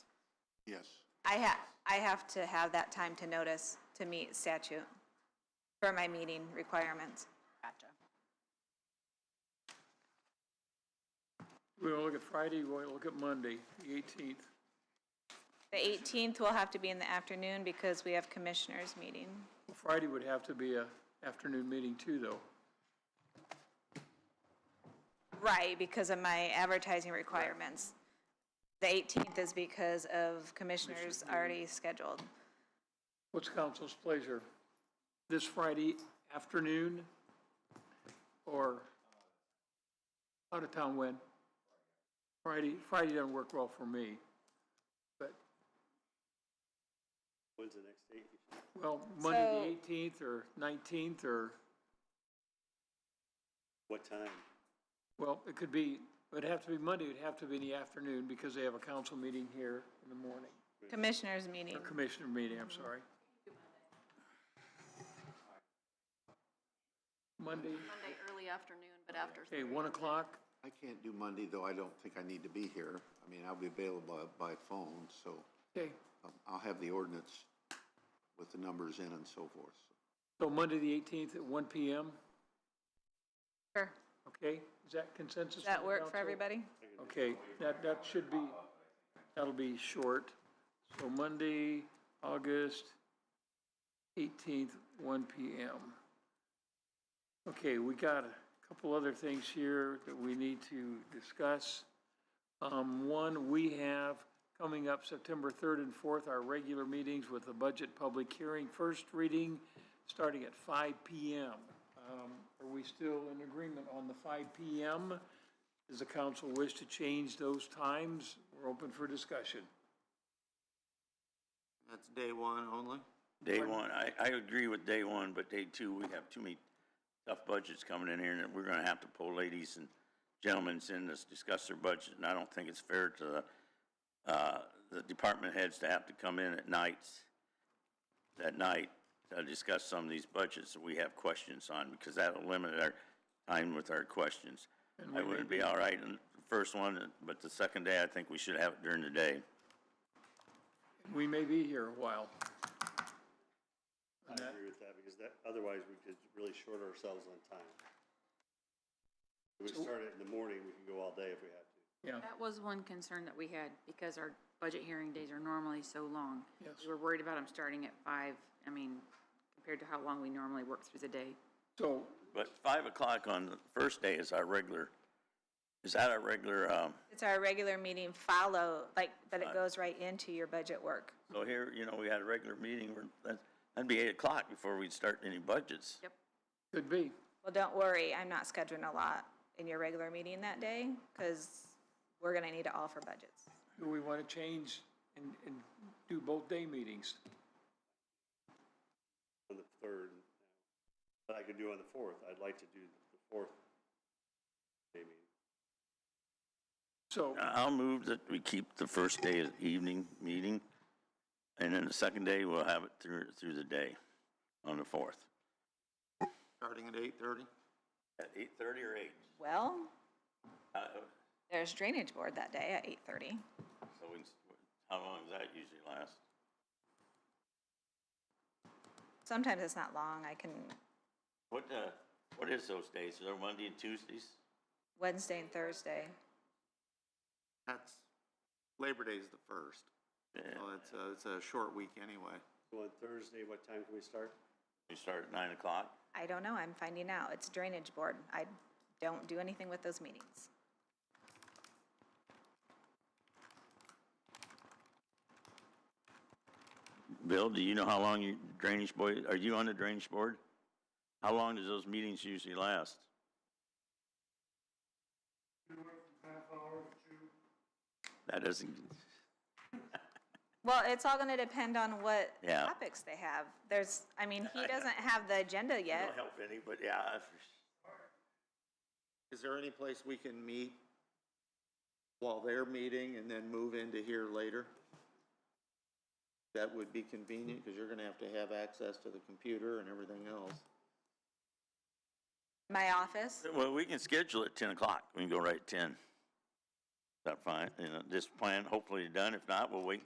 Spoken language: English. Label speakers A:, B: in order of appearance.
A: Yes.
B: I ha, I have to have that time to notice to meet statute for my meeting requirements.
C: Gotcha.
D: We want to look at Friday, we want to look at Monday, the eighteenth.
B: The 18th will have to be in the afternoon because we have commissioners' meeting.
D: Friday would have to be a afternoon meeting too, though.
B: Right, because of my advertising requirements. The 18th is because of commissioners already scheduled.
D: What's council's pleasure? This Friday afternoon or out of town when? Friday, Friday doesn't work well for me, but,
E: When's the next date?
D: well, Monday the
B: So-
D: eighteenth or nineteenth or,
E: What time?
D: well, it could be, it'd have to be Monday, it'd have to be in the afternoon because they have a council meeting here in the morning.
B: Commissioners' meeting.
D: Or commissioner meeting, I'm sorry. Monday,
F: Monday early afternoon, but after.
D: okay, one o'clock,
A: I can't do Monday, though I don't think I need to be here. I mean, I'll be available by by phone, so
D: okay.
A: um, I'll have the ordinance with the numbers in and so forth.
D: So Monday, the eighteenth at one PM,
B: Sure.
D: okay? Is that consensus?
B: Does
D: of
B: that
D: the
B: work for
D: council?
B: everybody?
D: Okay, that, that should be, that'll be short. So Monday, August eighteenth, one PM. Okay, we got a couple other things here that we need to discuss. Um, one, we have coming up September third and fourth, our regular meetings with the budget public hearing, first reading, starting at five PM. Um, are we still in agreement on the five PM? Does the council wish to change those times? We're open for discussion.
G: That's day one only?
E: Day one, I, I agree with day one, but day two, we have too many tough budgets coming in here, and we're gonna have to pull ladies and gentlemen in to discuss their budget, and I don't think it's fair to the, uh, the department heads to have to come in at nights, that night, to discuss some of these budgets that we have questions on, because that'll limit our time with our questions. I wouldn't be all right in the first one, but the second day, I think we should have it during the day.
D: We may be here a while.
H: I agree with that, because that, otherwise we could really short ourselves on time. If we start it in the morning, we can go all day if we have to.
D: Yeah,
C: That was one concern that we had, because our budget hearing days are normally so long.
D: Yes.
C: We were worried about them starting at five, I mean, compared to how long we normally work through the day.
D: so
E: But five o'clock on the first day is our regular, is that our regular, um,
B: It's our regular meeting follow, like, but it goes right into your budget work.
E: so here, you know, we had a regular meeting, we're- that's- that'd be eight o'clock before we'd start any budgets.
C: Yep.
D: could be.
B: Well, don't worry, I'm not scheduling a lot in your regular meeting that day because we're going to need it all for budgets.
D: Do we want to change and, and do both day meetings?
H: On the third, but I could do on the fourth, I'd like to do the fourth, maybe.
D: So,
E: I'll move that we keep the first day as evening meeting, and then the second day, we'll have it through, through the day on the fourth.
G: Starting at eight-thirty?
E: At eight thirty or eight?
B: Well,
E: Uh,
B: there's drainage board that day at 8:30.
E: So we, how long does that usually last?
B: Sometimes it's not long, I can,
E: What, uh, what is those days? Are there Monday and Tuesdays?
B: Wednesday and Thursday.
G: That's, Labor Day's the first,
E: Yeah.
G: so it's a, it's a short week anyway.
H: So on Thursday, what time can we start?
E: We start at nine o'clock?
B: I don't know, I'm finding out, it's drainage board, I don't do anything with those meetings.
E: Bill, do you know how long your drainage board, are you on the drainage board? How long does those meetings usually last? That doesn't,
B: Well, it's all gonna depend on what
E: Yeah.
B: topics they have. There's, I mean, he doesn't have the agenda
E: don't
B: yet.
E: help any, but yeah.
G: Is there any place we can meet while they're meeting and then move into here later? That would be convenient, because you're gonna have to have access to the computer and everything else.
B: My office,
E: Well, we can schedule at ten o'clock. We can go right at ten. Is that fine? You know, this plan hopefully done. If not, we'll wait